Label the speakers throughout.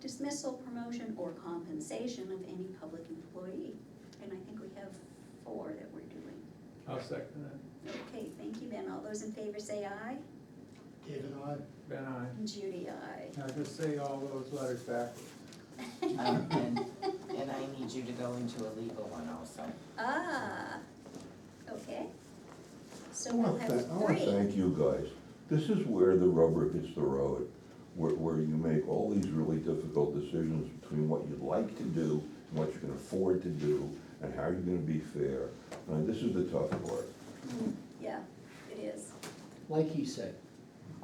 Speaker 1: dismissal, promotion, or compensation of any public employee. And I think we have four that we're doing.
Speaker 2: I'll second that.
Speaker 1: Okay, thank you, Ben. All those in favor say aye.
Speaker 3: David, I,
Speaker 2: Ben, I,
Speaker 1: And Judy, aye.
Speaker 2: now just say all those letters backwards.
Speaker 4: Um, and, and I need you to go into a legal one also.
Speaker 1: Ah, okay. So
Speaker 5: I wanna
Speaker 1: we'll have
Speaker 5: thank- I wanna
Speaker 1: three.
Speaker 5: thank you guys. This is where the rubber hits the road, where, where you make all these really difficult decisions between what you'd like to do, and what you can afford to do, and how you're gonna be fair. And this is the tough part.
Speaker 1: Mm, Yeah, it is.
Speaker 6: Like he said,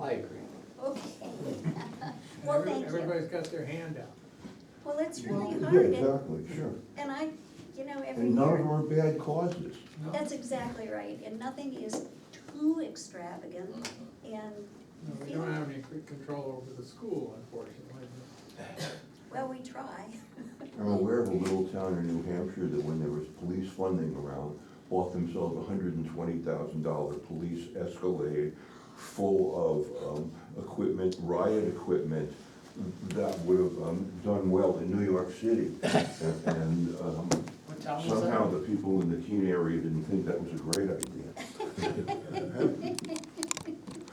Speaker 6: I agree.
Speaker 1: Okay.
Speaker 2: And
Speaker 1: Well,
Speaker 2: every-
Speaker 1: thank you.
Speaker 2: Everybody's got their hand out.
Speaker 1: Well, it's really
Speaker 5: Yeah,
Speaker 1: hard. and-
Speaker 5: exactly, sure.
Speaker 1: And I, you know, every
Speaker 5: And none of them
Speaker 1: year,
Speaker 5: are bad causes.
Speaker 2: No,
Speaker 1: that's exactly right. And nothing is too extravagant. And,
Speaker 2: no, we don't have any c- control over the school, unfortunately.
Speaker 1: well, we try.
Speaker 5: I'm aware of a little town in New Hampshire that when there was police funding around, bought themselves a hundred and twenty thousand dollar police Escalade full of, um, equipment, riot equipment, that would have, um, done well in New York City. And- And, um,
Speaker 3: what town was that?
Speaker 5: somehow the people in the Keene area didn't think that was a great idea.